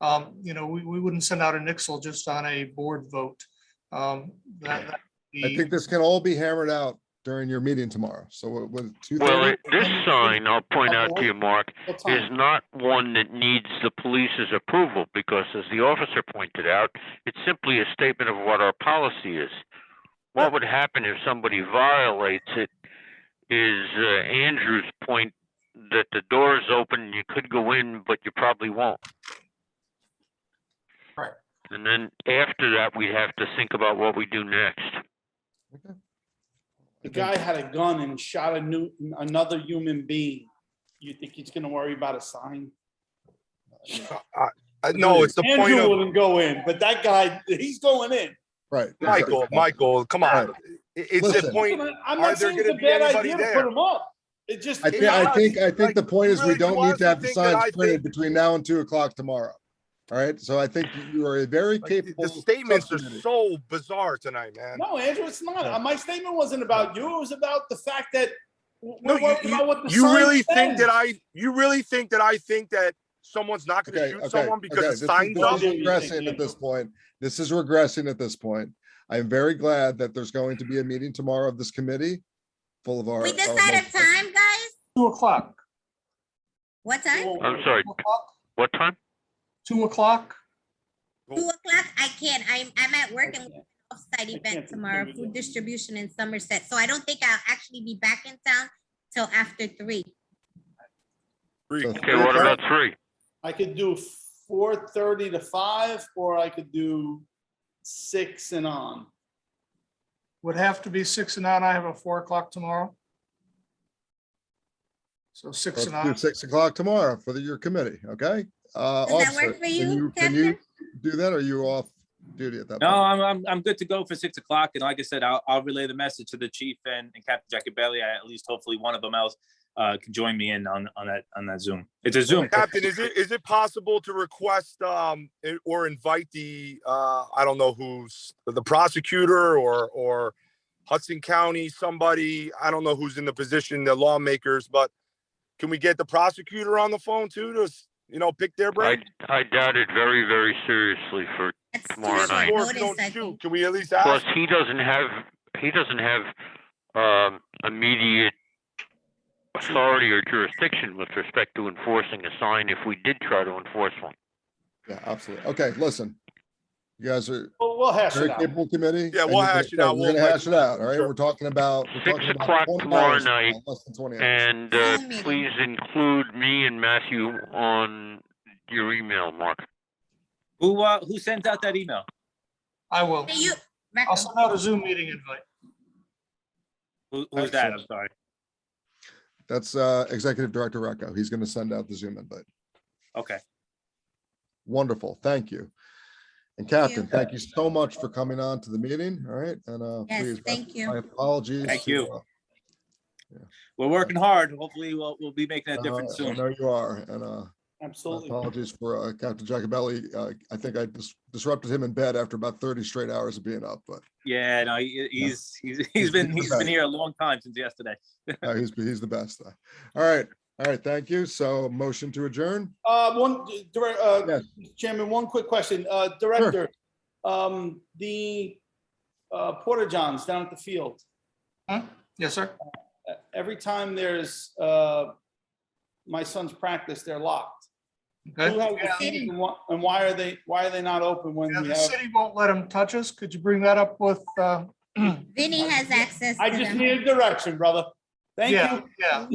um, you know, we, we wouldn't send out a nixel just on a board vote. Um, that, that would I be- think this can all be hammered out during your meeting tomorrow. So what, what, two Well, thirty? it- this sign, I'll point out to you, Mark, What is time? not one that needs the police's approval because as the officer pointed out, it's simply a statement of what our policy is. What would happen if somebody violates it is uh, Andrew's point that the door is open, you could go in, but you probably won't. Right. And then after that, we have to think about what we do next. The guy had a gun and shot a new, another human being. You think he's gonna worry about a sign? Uh, No, it's the point Andrew of, wouldn't go in, but that guy, he's going in. Right. Michael, exactly. Michael, come on. Alright. It- It's the Listen. point, I'm Are there not saying it's a gonna be bad anybody idea to there? put him up. It just. I think, I Yeah, think, I think like, the point is we really, don't you need to have the honestly think that I signs think- printed between now and two o'clock tomorrow. All right, so I think you are a very like, the capable. the statements are subcommittee. so bizarre tonight, man. No, Andrew, it's not. Uh, My statement wasn't about you. It was about the fact that w- No, we're you, worried about you, what the you sign really says. think that I, you really think that I think that someone's not gonna Okay, shoot okay, someone okay. because This the is sign's this up? is regressing at this point. This is regressing at this point. I'm very glad that there's going to be a meeting tomorrow of this committee full of our. We our decide a most- time, guys? Two o'clock, What time? I'm sorry, two o'clock, what time? two o'clock. Two o'clock? I can't. I'm, I'm at work and can't. off-site I event can't. tomorrow, food distribution in Somerset. So I don't think I'll actually be back in town till after three. So Okay, what about three? I could do four thirty to five, or I could do six and on. Would have to be six and on. I have a four o'clock tomorrow. So six Let's and do on. Six o'clock tomorrow for the- your committee, okay? Uh, Does that officer, work for can you, Can Captain? you do that? or Are you off duty at that? No, point? I'm, I'm, I'm good to go for six o'clock. And like I said, I'll, I'll relay the message to the chief and, and Captain Jacobelli. I- At least hopefully one of them else uh, can join me in on, on that, on that Zoom. It's a Zoom. Captain, is it, is it possible to request, um, i- or invite the, uh, I don't know who's, the prosecutor or, or Hudson County, somebody, I don't know who's in the position, the lawmakers, but can we get the prosecutor on the phone too, to, s- you know, pick their I, brain? I doubt it very, very seriously for That's too Tomorrow short night. Or if you notice, don't I shoot, think. can we at least Plus, ask? he doesn't have, he doesn't have, um, immediate authority or jurisdiction with respect to enforcing a sign if we did try to enforce one. Yeah, absolutely. Okay, listen. You guys are Well, we'll hash very it out. capable committee. Yeah, and we'll you're gonna- hash it out. We're gonna We'll- hash it out, all right? Sure. We're talking about. we're Six talking about o'clock 20 tomorrow hours from night, now, Less than twenty hours. And, uh, Zoom meeting. please include me and Matthew on your email, Mark. Who, uh, who sent out that email? I will. Hey, You, I'll send out a Zoom meeting invite. Who, who's that? I'm sorry. That's uh, Executive Director Rocco. He's gonna send out the Zoom invite. Okay. Wonderful, thank you. And Thank Captain, you. thank you so much for coming on to the meeting, all right? And uh, Yes, please, my- thank you. My apologies. Thank to, you. uh, We're working hard. Hopefully we'll, we'll be making a uh, difference I soon. know you are, and uh, my Absolutely. apologies for uh, Captain Jacobelli. Uh, I think I dis- disrupted him in bed after about thirty straight hours of being up, but Yeah, no, he- he's, he's, He's he's been, doing he's been better. here a long time since yesterday. uh, he's, he's the best. though. All right, all right, thank you. So motion to adjourn? Uh, one, direct, uh, Yes. Chairman, one quick question. Uh, Director, um, the, uh, Porter Johns down at the field, Yes, sir. uh, every time there's, uh, my son's practice, they're locked. Who Okay. has the keys And why- and why are they, why are they not open when Yeah, we The have? city won't let them touch us. Could you bring that up with, uh, Vinny has access I to just them. needed direction, brother. Thank yeah, you. yeah.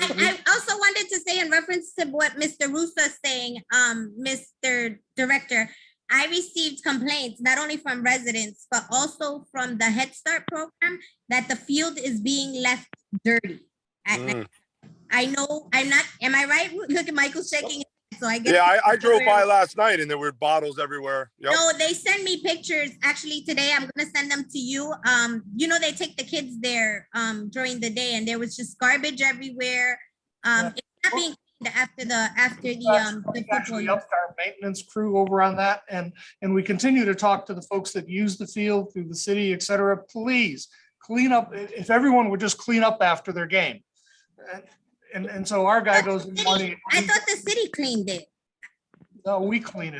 Mm-hmm. I, I also wanted to say in reference to what Mr. Russo is saying, um, Mr. Director, I received complaints not only from residents, but also from the Head Start program that the field is being left dirty. at night. Mm. I know, I'm not, am I right? Look at Michael shaking, his head, so I guess. Yeah, I, I drove by last night and there were bottles everywhere. Yep. No, they send me pictures. Actually, today I'm gonna send them to you. Um, you know, they take the kids there um during the day and there was just garbage everywhere. Um, it's not being cleaned after the, after the um. the We've football. Actually year. upped our maintenance crew over on that and, and we continue to talk to the folks that use the field through the city, et cetera. Please clean up, if, if everyone would just clean up after their game. And, and so our guy goes in the morning. I thought the city cleaned it. No, we clean it.